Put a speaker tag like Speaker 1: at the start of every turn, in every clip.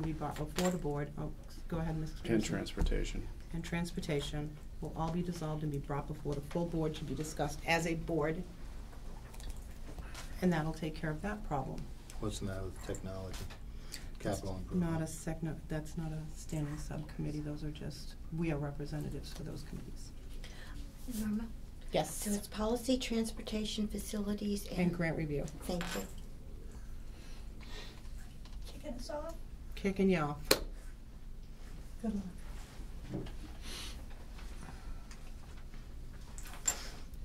Speaker 1: be brought before the board, oh, go ahead, Mr.
Speaker 2: and
Speaker 1: Commissioner.
Speaker 2: transportation.
Speaker 1: And transportation will all be dissolved and be brought before the full board to be discussed as a board. And that'll take care of that problem.
Speaker 3: What's now with technology, capital improvement?
Speaker 1: Not a sec, no, that's not a standing subcommittee, those are just, we are representatives for those committees.
Speaker 4: Norma, so
Speaker 1: Yes,
Speaker 4: it's policy, transportation, facilities, and.
Speaker 1: and grant review.
Speaker 4: Thank you.
Speaker 5: Kicking us off?
Speaker 1: Kicking y'all.
Speaker 5: Good luck.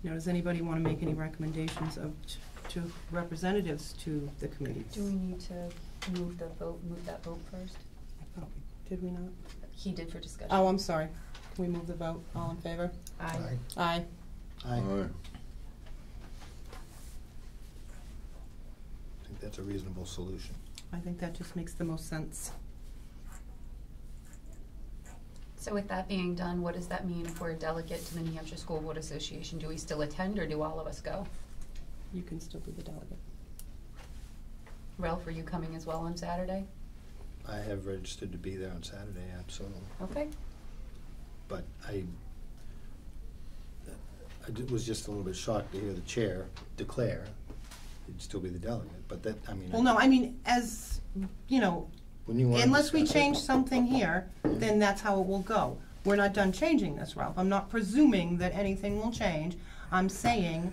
Speaker 1: Now, does anybody want to make any recommendations of, t- to representatives to the committees?
Speaker 6: Do we need to move the vote, move that vote first?
Speaker 1: I thought we- Oh, Did we not?
Speaker 6: He did for discussion.
Speaker 1: Oh, I'm sorry. Can we move the vote? All in favor?
Speaker 6: Aye.
Speaker 1: Aye.
Speaker 3: Aye.
Speaker 7: Aye.
Speaker 3: I think that's a reasonable solution.
Speaker 1: I think that just makes the most sense.
Speaker 6: So with that being done, what does that mean for a delegate to the New Hampshire School Board Association? Do we still attend or do all of us go?
Speaker 1: You can still be the delegate.
Speaker 6: Ralph, are you coming as well on Saturday?
Speaker 3: I have registered to be there on Saturday, absolutely,
Speaker 6: Okay.
Speaker 3: but I, I ju- was just a little bit shocked to hear the chair declare he'd still be the delegate, but that, I mean.
Speaker 1: Well, no, I mean, as, you know,
Speaker 3: When you want to
Speaker 1: unless we
Speaker 3: discuss it-
Speaker 1: change something here, then that's how it will go. We're not done changing this, Ralph. I'm not presuming that anything will change. I'm saying,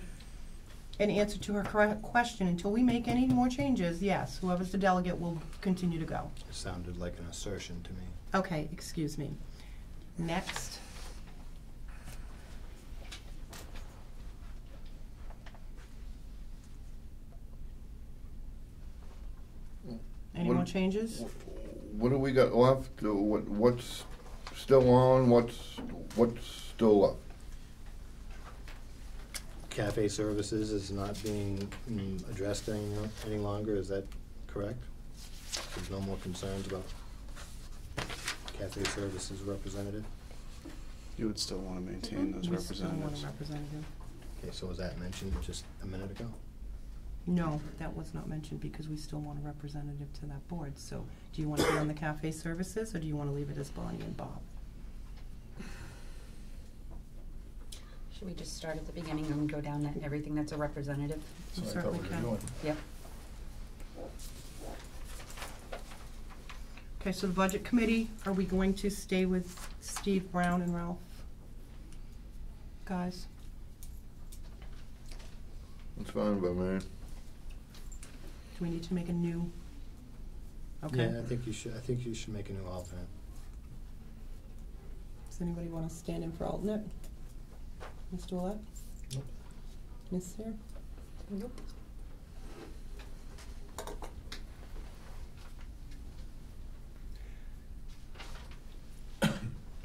Speaker 1: in answer to her correct question, until we make any more changes, yes, whoever's the delegate will continue to go.
Speaker 3: It Sounded like an assertion to me.
Speaker 1: Okay, excuse me. Next. Any
Speaker 7: What-
Speaker 1: more changes?
Speaker 7: What do we got left? Uh, What, what's still on? What's, what's still left?
Speaker 3: Cafe services is not being mm, addressed any, any longer, is that correct? There's no more concerns about cafe services representative?
Speaker 2: You would still want to maintain those
Speaker 1: Mm-hmm. We still want a
Speaker 2: representatives.
Speaker 1: representative.
Speaker 3: Okay, so was that mentioned just a minute ago?
Speaker 1: No, that was not mentioned because we still want a representative to that board. So do you want to be on the cafe services or do you want to leave it as Bonnie and Bob?
Speaker 6: Should we just start at the beginning and go down that, everything that's a representative?
Speaker 1: You certainly can.
Speaker 6: Yep.
Speaker 1: Okay, so the budget committee, are we going to stay with Steve Brown and Ralph? Guys?
Speaker 7: It's fine by me.
Speaker 1: Do we need to make a new? Okay.
Speaker 3: Yeah, I think you should, I think you should make a new alternate.
Speaker 1: Does anybody want to stand in for alternate? Ms. Dwellette?
Speaker 3: Nope.
Speaker 1: Ms. Sarah?
Speaker 6: Nope.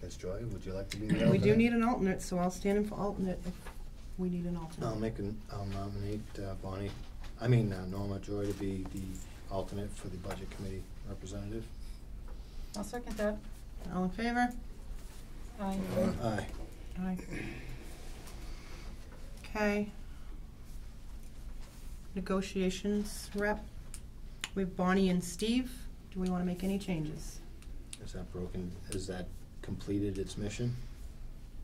Speaker 3: Ms. Joy, would you like to be the alternate?
Speaker 1: We do need an alternate, so I'll stand in for alternate if we need an alternate.
Speaker 3: I'll make an, I'll nominate uh, Bonnie, I mean uh, Norma Joy to be the alternate for the budget committee representative.
Speaker 6: I'll second that.
Speaker 1: All in favor?
Speaker 6: Aye.
Speaker 1: Mm-hmm.
Speaker 3: Aye.
Speaker 1: Aye. Okay. Negotiations rep, we have Bonnie and Steve. Do we want to make any changes?
Speaker 3: Is that broken, is that completed its mission?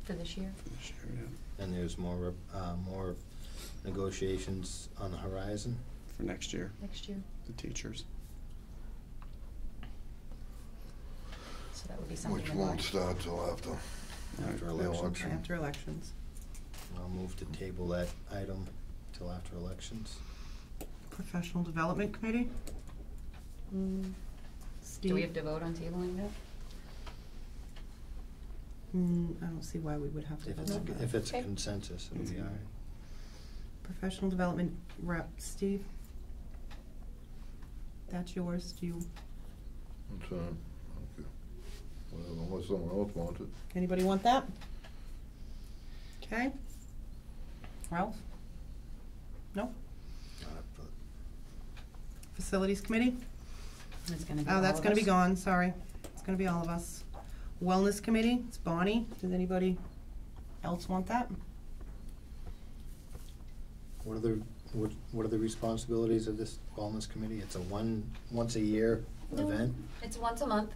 Speaker 6: For this year?
Speaker 2: Sure, yeah,
Speaker 3: And there's more, rep- uh, more negotiations on the horizon?
Speaker 2: For next year,
Speaker 6: Next year?
Speaker 2: the teachers.
Speaker 6: So that would be something.
Speaker 7: Which
Speaker 6: in
Speaker 7: won't
Speaker 6: March.
Speaker 7: start till after.
Speaker 3: After
Speaker 2: Yeah,
Speaker 3: elections?
Speaker 7: election.
Speaker 1: After elections.
Speaker 3: I'll move to table that item till after elections.
Speaker 1: Professional Development Committee?
Speaker 6: Mm.
Speaker 1: Steve?
Speaker 6: Do we have to vote on tabling that?
Speaker 1: Mm, I don't see why we would have to
Speaker 3: If
Speaker 1: vote
Speaker 3: it's,
Speaker 1: on
Speaker 3: if
Speaker 1: that.
Speaker 3: it's
Speaker 6: Okay.
Speaker 3: consensus, it'll be all right.
Speaker 1: Professional Development Rep, Steve? That's yours, do you,
Speaker 7: It's fine. Okay. Well, unless someone else wants it.
Speaker 1: anybody want that? Okay. Ralph? No?
Speaker 3: Not up for-
Speaker 1: Facilities Committee?
Speaker 6: It's gonna be all
Speaker 1: Oh,
Speaker 6: of
Speaker 1: that's gonna be
Speaker 6: us.
Speaker 1: gone, sorry. It's gonna be all of us. Wellness Committee, it's Bonnie. Does anybody else want that?
Speaker 3: What are the, what, what are the responsibilities of this wellness committee? It's a one, once a year event?
Speaker 6: It's once a month.